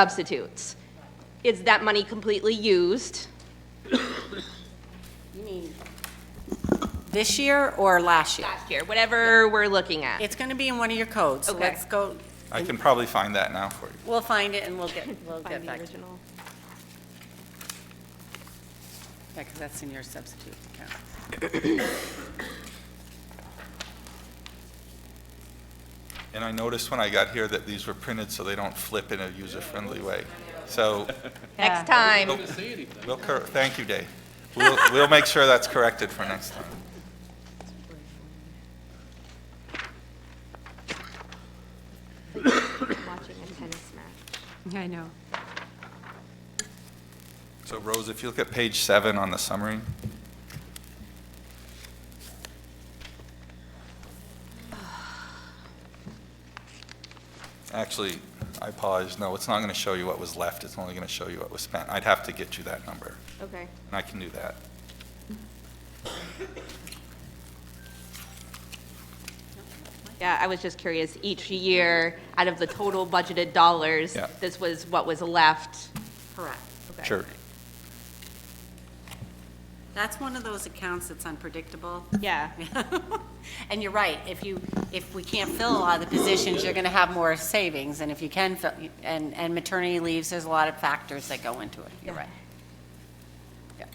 substitutes. Is that money completely used? This year or last year? Last year, whatever we're looking at. It's going to be in one of your codes. Okay. Let's go, I can probably find that now for you. we'll find it and we'll get, we'll Find get the back to you. original. Yeah, because that's in your substitute account. And I noticed when I got here that these were printed so they don't flip in a user-friendly way. So, Next time, we'll, cor- thank you, Dave. We'll, we'll make sure that's corrected for next time. watching a tennis match. I know. So Rose, if you look at page seven on the summary, actually, I paused, no, it's not going to show you what was left, it's only going to show you what was spent. I'd have to get you that number, Okay. and I can do that. Yeah, I was just curious, each year, out of the total budgeted dollars, Yeah. this was what was left? Correct. Okay. Sure. That's one of those accounts that's unpredictable. Yeah. And you're right, if you, if we can't fill a lot of the positions, you're going to have more savings. And if you can, fill and, and maternity leaves, there's a lot of factors that go into it. You're right. Yeah.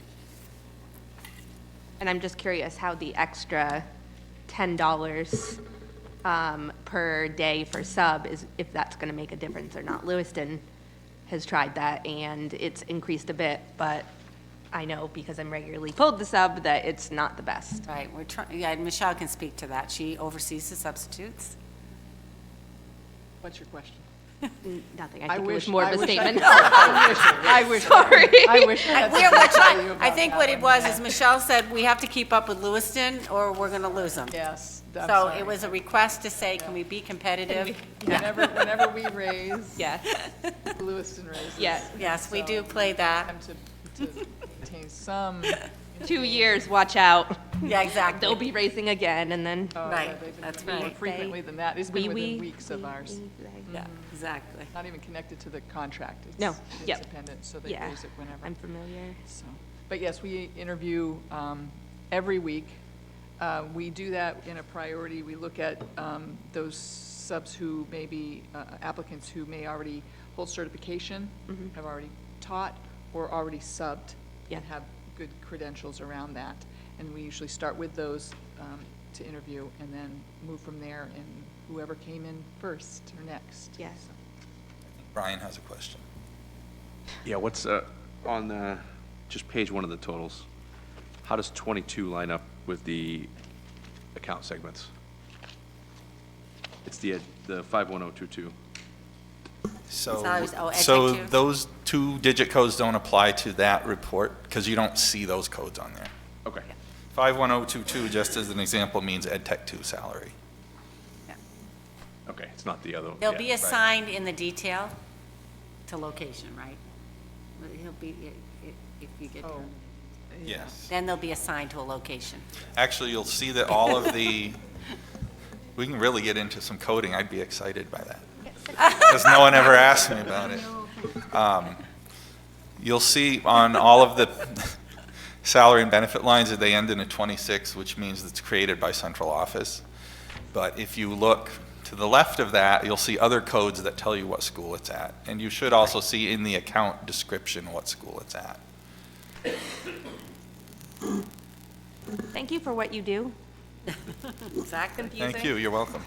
And I'm just curious how the extra $10 um, per day for sub is, if that's going to make a difference or not. Lewiston has tried that, and it's increased a bit, but I know because I'm regularly pulled the sub that it's not the best. Right, we're trying, yeah, and Michelle can speak to that. She oversees the substitutes. What's your question? Nothing, I I think it was wish- more of I a wish I statement. I wish, I Sorry. wish. I had We're, something we're to tell you trying, I about think that what it one. was is Michelle said, we have to keep up with Lewiston or we're going to lose them. Yes, I'm So sorry. it was a request to say, can we be competitive? Whenever, whenever we raise, Yeah, Lewiston raises. yeah. Yes, we do play that. Time to, to attain some, uh, Two years, watch out. Yeah, They'll exactly. be racing again, and then. uh, Right, they've been that's doing it more right. frequently than that. It's Wee been wee, within weeks of ours, Mm-hmm. Yeah, exactly. not even connected to the contract. It's- No, yep. It's dependent, so they Yeah, raise it whenever. I'm familiar. So, but yes, we interview um, every week. Uh, We do that in a priority. We look at um, those subs who may be uh, applicants who may already hold certification, have already taught, or already subbed, Yeah. and have good credentials around that. And we usually start with those um, to interview and then move from there and whoever came in first or next. Yes. Brian has a question. Yeah, what's, uh, on, uh, just page one of the totals, how does twenty-two line up with the account segments? It's the, uh, the five one oh two two. So, So I was- oh, Ed so Tech too? those two digit codes don't apply to that report because you don't see those codes on there. Okay. 51022, just as an example, means Ed Tech 2 salary. Okay, it's not the other. They'll yeah, be assigned in the detail to location, right? He'll be, i- i- if you get, Oh. Yes. then they'll be assigned to a location. Actually, you'll see that all of the, we can really get into some coding. I'd be excited by that. Because no one ever asked me about it. Um, You'll see on all of the salary and benefit lines that they end in a 26, which means it's created by central office. But if you look to the left of that, you'll see other codes that tell you what school it's at. And you should also see in the account description what school it's at. Thank you for what you do. Exactly. Thank you, you're welcome.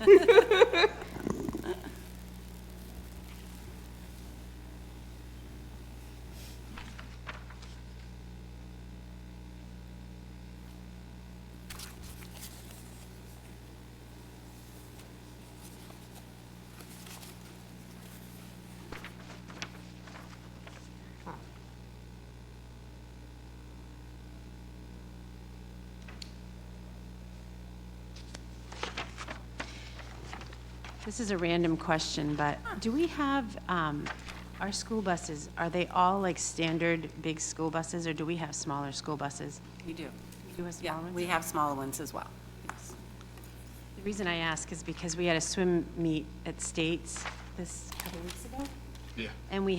This is a random question, but do we have, um, our school buses, are they all like standard big school buses, or do we have smaller school buses? You do. Do you have Yeah, smaller ones? we have smaller ones as well. Yes. The reason I ask is because we had a swim meet at States this couple weeks ago, And we